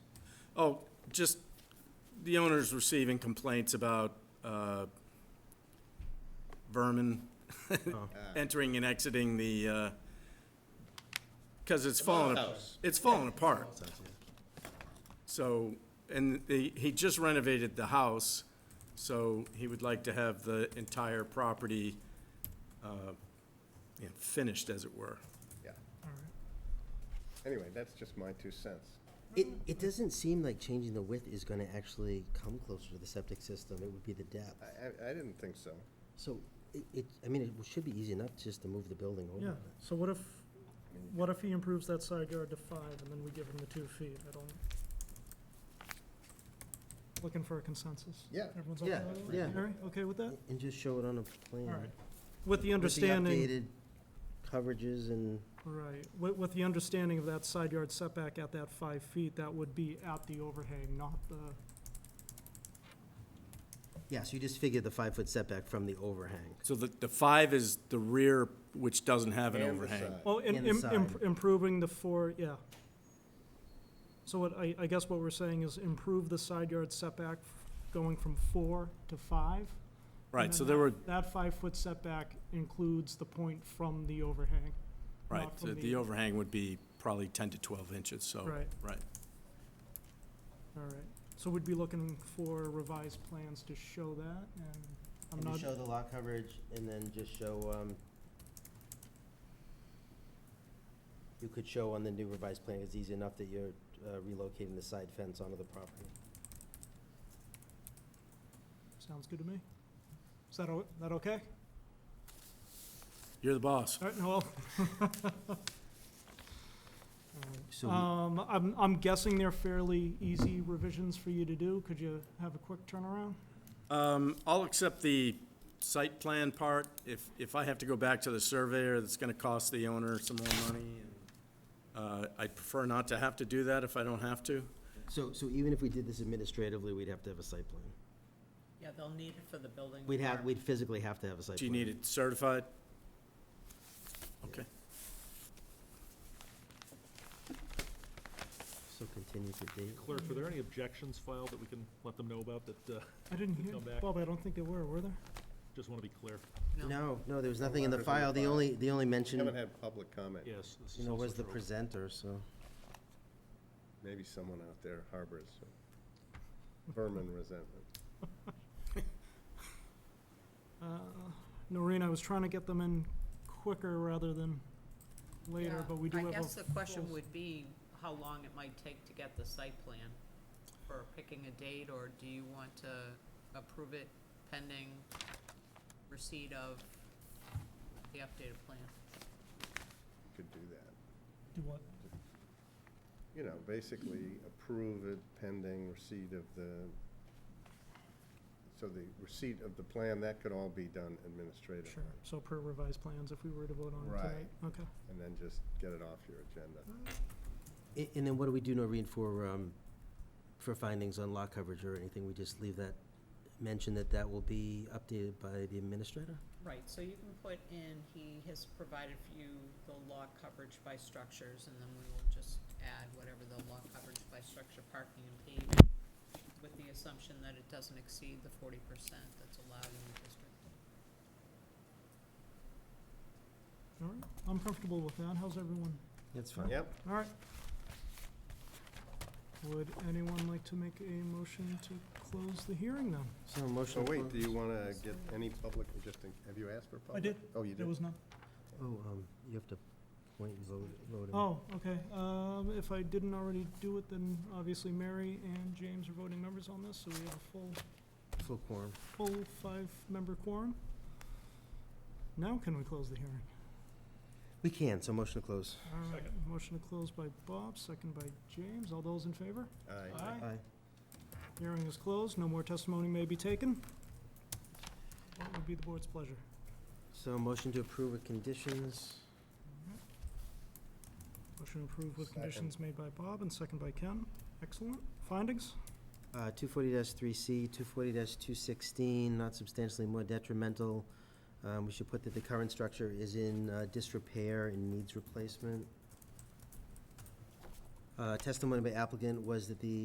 Oh, just, the owner's receiving complaints about uh, vermin Oh. entering and exiting the, because it's fallen, house. it's fallen apart. So, and the, he just renovated the house, so he would like to have the entire property uh, you know, finished, as it were. Yeah. Anyway, that's just my two cents. It, it doesn't seem like changing the width is gonna actually come closer to the septic system, it would be the depth. I, I, I didn't think so. So, it, it, I mean, it should be easy enough just to move the building Yeah, over. so what if, what if he improves that side yard to five and then we give him the two feet? I don't. Looking for a consensus? Yeah. Everyone's okay Yeah, with that? yeah. Mary, okay with that? And just show it on a plan. All right. With the with the understanding, updated Coverages and, right, with, with the understanding of that side yard setback at that five feet, that would be at the overhang, not the, yeah, so you just figure the five-foot setback from the overhang. So the, the five is the rear, which doesn't have an And the overhang. side. oh, im- And the im- im- side. improving the four, yeah. So what, I, I guess what we're saying is improve the side yard setback f- going from four to five? Right, And so then there were, that- That five-foot setback includes the point from the overhang. right, not the from the overhang would be probably 10 to 12 inches, so. Right. Oh, Right. All right, so we'd be looking for revised plans to show that, and I'm And not, just show the lot coverage and then just show, um, you could show on the new revised plan, it's easy enough that you're uh, relocating the side fence onto the property. sounds good to me. Is that, o- that okay? You're the boss. All right, Noel? So we- Um, I'm, I'm guessing they're fairly easy revisions for you to do. Could you have a quick turnaround? Um, I'll accept the site plan part. If, if I have to go back to the surveyor, that's gonna cost the owner some more money. and, Uh, I'd prefer not to have to do that if I don't have to. So, so even if we did this administratively, we'd have to have a site plan? Yeah, they'll need it for the building. We'd have, department. we'd physically have to have a site plan. Do you need it certified? Okay. So continue to date. Clerk, were there any objections filed that we can let them know about that, uh, I didn't hear, Come back. Bob, I don't think there were, were there? just want to be clear? No, no, there was nothing in the Well, that was in the file, the file. only, the only We haven't mention, had public comment. Yes. this you is know, also was the true. presenter, so. Maybe someone out there harbors some vermin resentment. Uh, Noreen, I was trying to get them in quicker rather than later, Yeah, but we do have a. I guess the question full- would be how long it might take to get the site plan for picking a date, or do you want to approve it pending receipt of the updated plan? Could do that. Do what? You know, basically approve it pending receipt of the, so the receipt of the plan, that could all be done administratively. Sure, so per revised plans, if we were to vote on it Right. tonight, okay. And then just get it off your agenda. A- And then what do we do, Noreen, for, um, for findings on lot coverage or anything? We just leave that, mention that that will be updated by the administrator? Right, so you can put in, he has provided for you the law coverage by structures, and then we will just add whatever the law coverage by structure, parking and paving, with the assumption that it doesn't exceed the forty percent that's allowed in the district. All right, I'm comfortable with that, how's everyone? That's Yep, All right. Would anyone like to make a motion to close the hearing then? So so motion to Oh, wait, do you close. want to get any public, just, in- have you asked for public? did. Oh, you There did? was none. Oh, um, you have to point and vote, vote. him. Oh, okay, um, if I didn't already do it, then obviously Mary and James are voting members on this, so we have a full Full quorum. full five-member quorum. Now can we close the hearing? We can, so motion to close. All right, motion to close by Bob, second by James. All those in favor? Aye. Aye. Aye. Hearing is closed. No more testimony may be taken. What would be the board's pleasure? So motion to approve with conditions. Motion approved with Second. conditions made by Bob and second by Ken. Excellent. Findings? Uh, 240-3C, 240-216, not substantially more detrimental. Um, We should put that the current structure is in uh, disrepair and needs replacement. Uh, Testimony by applicant was that the